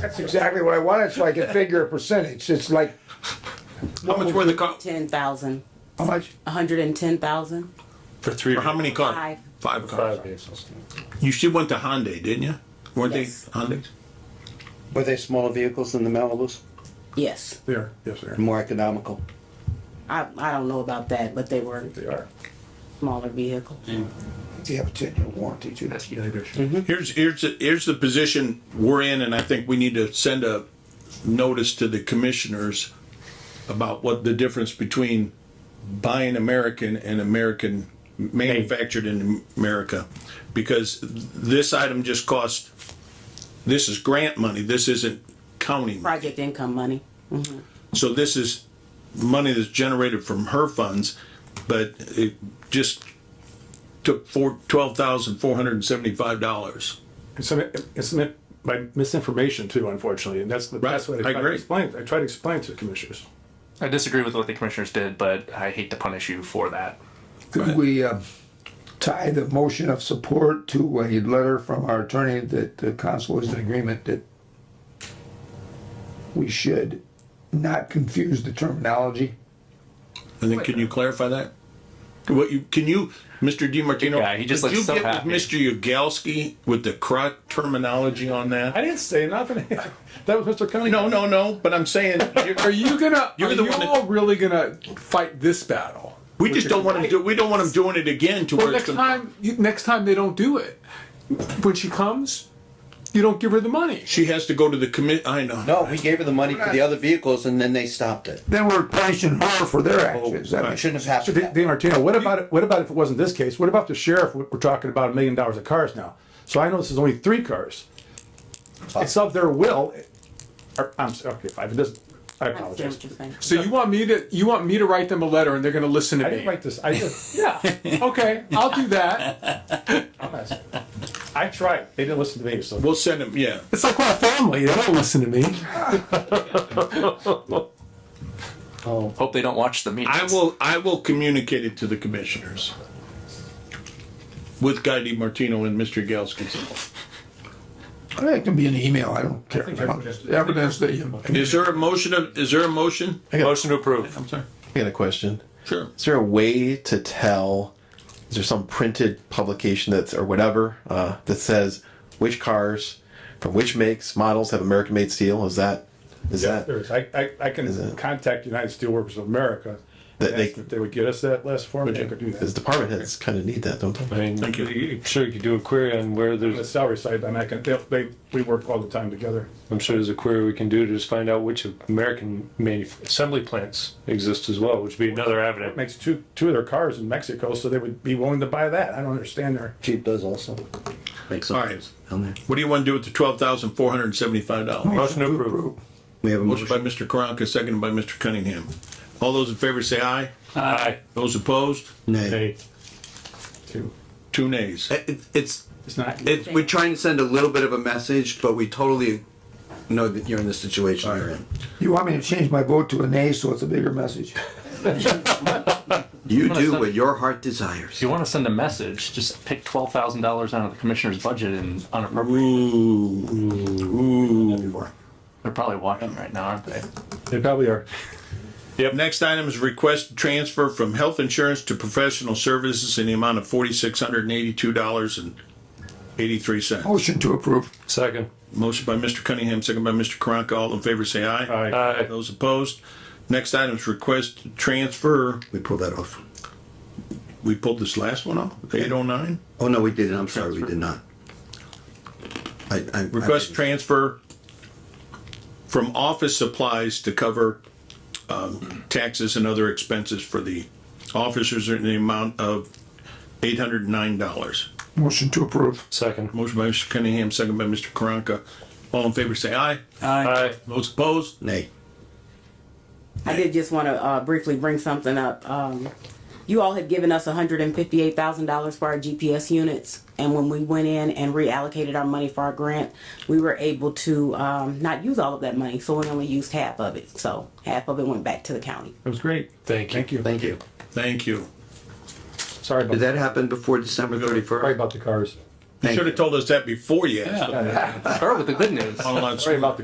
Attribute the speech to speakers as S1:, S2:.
S1: That's exactly what I wanted, so I could figure a percentage. It's like,
S2: How much were the car?
S3: Ten thousand.
S1: how much?
S3: A hundred and ten thousand.
S4: for three.
S2: For how many cars?
S3: Five.
S2: Five cars.
S5: Five vehicles.
S2: You should went to Hyundai, didn't you? Weren't they
S3: Yes.
S2: Hyundai's?
S6: Were they smaller vehicles than the Malibus?
S3: Yes.
S5: They are, yes, they are.
S6: More economical?
S3: I, I don't know about that, but they were
S5: They are.
S3: smaller vehicles.
S1: Do you have a ten-year warranty too?
S5: Yeah, they do.
S3: Mm-hmm.
S2: Here's, here's, the- here's the position we're in, and I think we need to send a notice to the commissioners about what the difference between buying American and American, manufactured in America. Because this item just cost, this is grant money, this isn't county money.
S3: Project income money.
S2: So this is money that's generated from her funds, but it just took four, twelve thousand four hundred and seventy-five dollars.
S5: It's meant, it's meant by misinformation too, unfortunately, and that's the best way
S2: Right,
S5: to
S2: I
S5: try to
S2: agree.
S5: explain, I try to explain to the commissioners.
S7: I disagree with what the commissioners did, but I hate to punish you for that.
S1: Could we uh, tie the motion of support to a letter from our attorney that the council is in agreement that we should not confuse the terminology?
S2: And then can you clarify that? What you, can you, Mr. DiMartino?
S7: Yeah, he just
S2: could
S7: looks
S2: you
S7: so
S2: get with
S7: happy.
S2: Mr. Yagowski with the correct terminology on
S5: I
S2: that?
S5: didn't say nothing. That was Mr. Cunningham.
S2: No, no, no, but I'm saying, you're-
S8: Are you gonna?
S2: You're
S8: are
S2: the
S8: you
S2: one that-
S8: all really gonna fight this battle?
S2: we just don't want him do, we don't want him doing it again to
S8: Well,
S2: where it's
S8: next
S2: gonna.
S8: time, you, next time they don't do it. When she comes, you don't give her the money.
S2: She has to go to the commit, I know.
S6: No, we gave her the money for the other vehicles and then they stopped it.
S1: Then we're punishing her for their actions. I mean,
S6: Shouldn't have happened.
S5: Dean Martino, what about, it- what about if it wasn't this case? What about the sheriff? We're talking about a million dollars of cars now. So I know this is only three cars. It's of their will. Or, I'm, s- okay, five, it doesn't, I
S3: I understand
S5: apologize.
S3: what you're saying.
S8: So you want me to you want me to write them a letter and they're gonna listen to
S5: I
S8: me?
S5: didn't write this, I just,
S8: yeah. Okay, I'll do that.
S5: I tried. They didn't listen to me, so.
S2: We'll send him, yeah.
S8: It's like my family. They don't listen to me.
S7: Hope they don't watch the meetings.
S2: I will, I will communicate it to the commissioners. With Guy DiMartino and Mr. Yagowski.
S1: I think It can be an email, I don't care. Evidence that you.
S2: Is there a motion of, is there a motion?
S7: Motion to approve.
S2: I'm sorry.
S9: I got a question.
S2: Sure.
S9: Is there a way to tell? Is there some printed publication that's or whatever uh, that says which cars from which makes models have American-made steel? Is that is that
S5: There is. I, I, I can
S9: it-
S5: contact United Steelworkers of America.
S9: That
S5: and
S9: they-
S5: ask If they would get us that list for me, I could do that.
S9: Because department heads kind of need that, don't they?
S10: I mean,
S2: Thank you.
S10: I'm sure you could do a query on where
S5: The
S10: there's,
S5: salary side, I mean, I can, they, they, we work all the time together.
S10: I'm sure there's a query we can do to just find out which American manuf- assembly plants exist as well, which would be another
S5: It
S10: avenue.
S5: Makes two, two of their cars in Mexico, so they would be willing to buy that. I don't understand their.
S6: Jeep does also. Makes
S2: All right. What do you want to do with the twelve thousand four hundred and seventy-five dollars?
S10: Motion to approve.
S6: We have a
S2: Motion
S6: motion.
S2: by Mr. Karanka, seconded by Mr. Cunningham. All those in favor say aye.
S10: Aye.
S2: Those opposed,
S6: Nay.
S2: two nays.
S6: Uh, It- It's,
S5: It's not.
S6: it's, we're trying to send a little bit of a message, but we totally know that you're in the situation you're in.
S1: You want me to change my vote to a nay, so it's a bigger message?
S6: You do what your heart desires.
S7: If you want to send a message, just pick twelve thousand dollars out of the commissioner's budget and unappropriate.
S2: Ooh.
S7: They're probably watching right now, aren't they?
S5: They probably are.
S2: Next item is request to transfer from health insurance to professional services in the amount of forty-six hundred and eighty-two dollars and eighty-three cents.
S1: Motion to approve.
S10: Second.
S2: Motion by Mr. Cunningham, second by Mr. Karanka. All in favor say aye.
S10: Aye.
S2: Those opposed, next item is request to transfer,
S6: We pulled that off.
S2: we pulled this last one off, eight oh nine?
S6: Oh, no, we didn't. I'm sorry, we did not. I, I.
S2: Request transfer from office supplies to cover um, taxes and other expenses for the officers in the amount of eight hundred and nine dollars.
S1: Motion to approve.
S10: Second.
S2: Motion by Mr. Cunningham, second by Mr. Karanka. All in favor, say aye.
S10: Aye.
S2: Those opposed?
S6: Nay.
S3: I did just want to uh, briefly bring something up. Um, you all had given us $158,000 for our GPS units, and when we went in and reallocated our money for our grant, we were able to um, not use all of that money, so we only used half of it. So half of it went back to the county.
S5: It was great.
S10: Thank you.
S5: Thank you.
S6: Thank you.
S2: Thank you.
S5: Sorry about,
S6: Did that happen before December
S5: sorry
S6: thirty-first?
S5: about the cars.
S2: You should have told us that before you asked.
S7: Start with the good news.
S2: Online
S5: Sorry about the